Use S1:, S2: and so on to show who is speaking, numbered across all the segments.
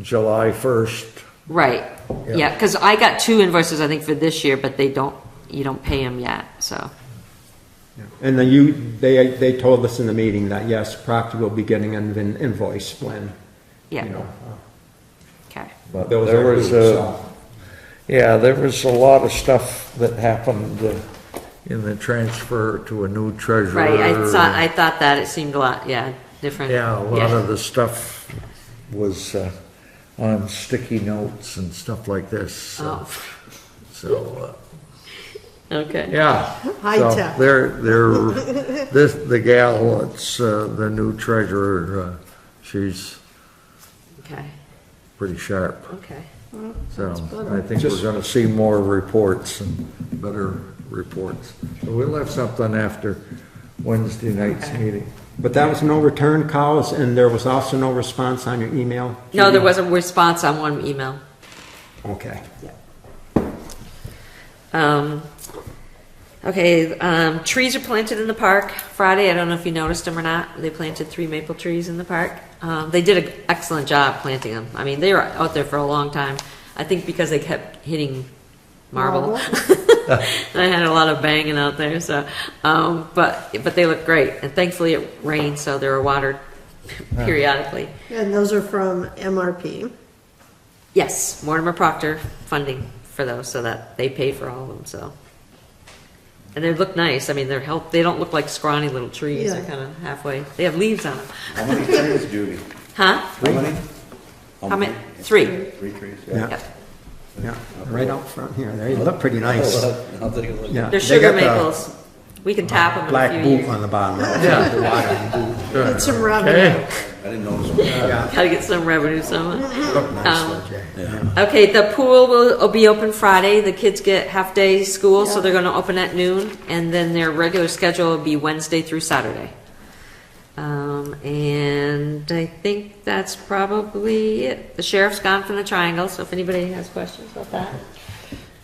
S1: July 1st.
S2: Right,
S1: Yeah.
S2: yeah, because I got two invoices, I think, for this year, but they don't, you don't pay them yet, so.
S3: And then you, they, they told us in the meeting that yes, Proctor will be getting an in- invoice when, you
S2: Yeah.
S3: know. uh,
S2: Okay,
S1: But
S3: those
S1: there
S3: are
S1: was uh,
S3: due,
S1: a,
S3: so.
S1: yeah, there was a lot of stuff that happened uh, in the transfer to a new treasurer.
S2: right, I thought, I thought that, it seemed a lot, yeah, different.
S1: Yeah, a lot of the stuff was uh, on sticky notes and stuff like this, so,
S2: Oh,
S1: so, uh,
S2: okay,
S1: yeah.
S4: High
S1: So
S4: tech.
S1: They're, they're, this, the gal, that's uh, the new treasurer, uh, she's
S2: okay,
S1: pretty sharp.
S2: okay.
S1: So I think we're gonna see more reports and better reports. So We'll have something after Wednesday night's meeting.
S3: But that was no return calls and there was also no response on your email?
S2: No, there
S3: Judy?
S2: was a response on one email.
S3: Okay.
S2: Um, okay, um, trees are planted in the park Friday. I don't know if you noticed them or not. They planted three maple trees in the park. Um, they did an excellent job planting them. I mean, they were out there for a long time. I think because they kept hitting marble. I had a lot of banging out there, so, um, but, but they look great. And thankfully it rained, so they were watered periodically.
S4: And those are from MRP.
S2: Yes, Mortimer Proctor funding for those, so that they pay for all of them, so. And they look nice, I mean, they're help, they don't look like scrawny little trees, they're
S4: Yeah.
S2: kind of halfway, they have leaves on them.
S5: How many trees, Judy?
S2: Huh?
S5: How many?
S2: How many? Three.
S5: Three trees,
S3: Yeah.
S5: yeah.
S2: Yep.
S3: Yeah, right out front here. They look pretty nice.
S5: I'll take a look.
S3: Yeah,
S2: They're
S3: they
S2: sugar
S3: got the
S2: maples. We can tap them in a
S3: Black
S2: few
S3: boot
S2: years.
S3: on the bottom.
S4: Get some revenue.
S5: I didn't notice.
S2: Gotta get some revenue somewhere.
S3: Look
S2: Um,
S3: nice, though, Jay.
S2: Okay, the pool will, will be open Friday, the kids get half-day school, so they're gonna open at noon, and then their regular schedule will be Wednesday through Saturday. Um, and I think that's probably it. The sheriff's gone from the triangle, so if anybody has questions about that.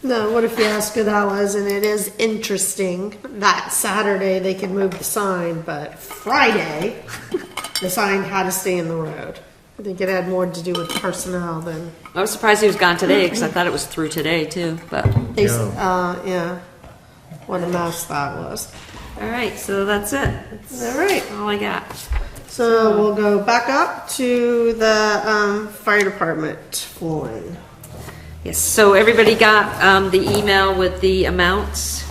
S4: No, what if you ask who that was? And it is interesting that Saturday they could move the sign, but Friday the sign had to stay in the road. I think it had more to do with personnel than
S2: I was surprised he was gone today, because I thought it was through today too, but, all
S4: they, uh, yeah. What a mess that was.
S2: right, so that's it. That's
S4: All right.
S2: all I got.
S4: So we'll go back up to the um, fire department flooring.
S2: Yes, so everybody got um, the email with the amounts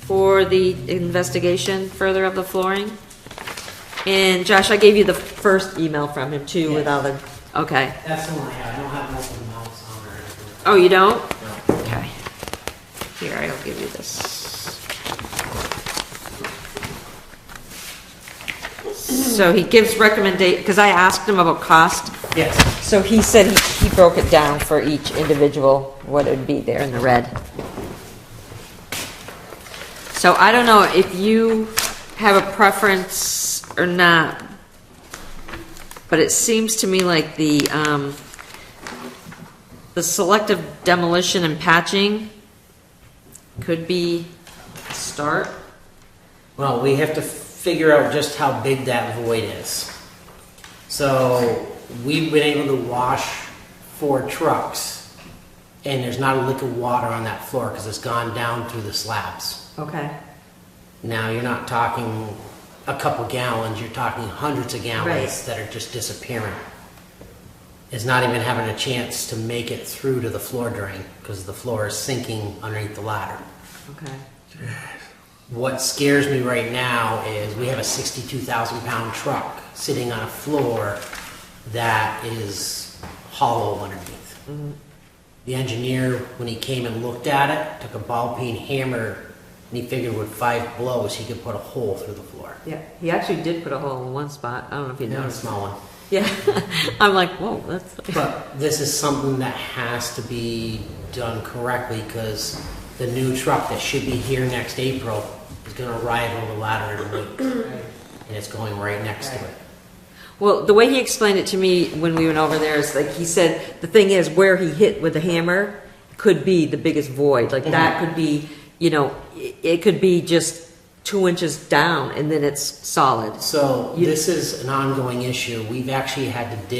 S2: for the investigation further of the flooring? And Josh, I gave you the first email from him too with all the, okay.
S6: That's the one I have, I don't have multiple mounts on or anything.
S2: Oh, you don't? Okay. Here, I'll give you this. So he gives recommendation, because I asked him about cost,
S6: Yes,
S2: so he said he, he broke it down for each individual, what it'd be there in the red. So I don't know if you have a preference or not, but it seems to me like the, um, the selective demolition and patching could be a start.
S6: well, we have to figure out just how big that void is. So, we've been able to wash four trucks, and there's not a lick of water on that floor, because it's gone down through the slabs.
S2: Okay.
S6: Now, you're not talking a couple gallons, you're talking hundreds of gallons that are just disappearing. It's not even having a chance to make it through to the floor drain, because the floor is sinking underneath the ladder.
S2: Okay.
S6: What scares me right now is we have a 62,000 pound truck sitting on a floor that is hollow underneath. The engineer, when he came and looked at it, took a ball peen hammer and he figured with five blows he could put a hole through the floor.
S2: Yeah, he actually did put a hole in one spot. I don't know if you
S6: Not a
S2: noticed.
S6: small one.
S2: Yeah, I'm like, whoa, that's.
S6: But this is something that has to be done correctly because the new truck that should be here next April is going to arrive on the ladder in a week. And it's going right next to it.
S2: Well, the way he explained it to me when we went over there is like, he said, the thing is where he hit with the hammer could be the biggest void. Like that could be, you know, i- it could be just two inches down and then it's solid.
S6: So
S2: You-
S6: this is an ongoing issue. We've actually had to dig